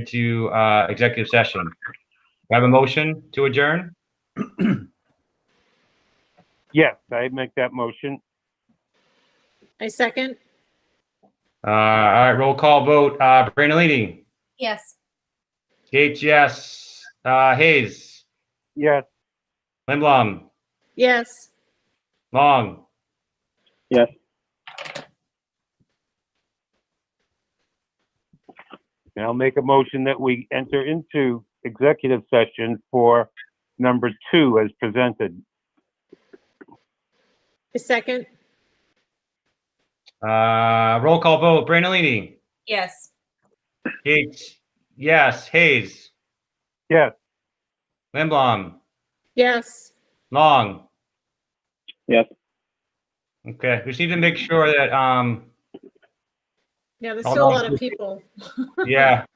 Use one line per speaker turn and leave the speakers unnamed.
into uh, executive session. Do I have a motion to adjourn?
Yes, I make that motion.
I second.
Uh, All right, roll call vote. Uh, Brandolini,
Yes.
Gates, yes. E Uh, Hayes,
Yes.
Limblom,
Yes.
Long.
Yes. And I'll make a motion that we enter into executive session for number two as presented.
I second.
Uh, roll call vote. Brandolini,
Yes.
Gates, yes. E Hayes,
Yes.
Limblom,
Yes.
Long.
Yes.
Okay, we just need to make sure that, um,
Yeah, there's
Hold
still a
on.
lot of people.
yeah,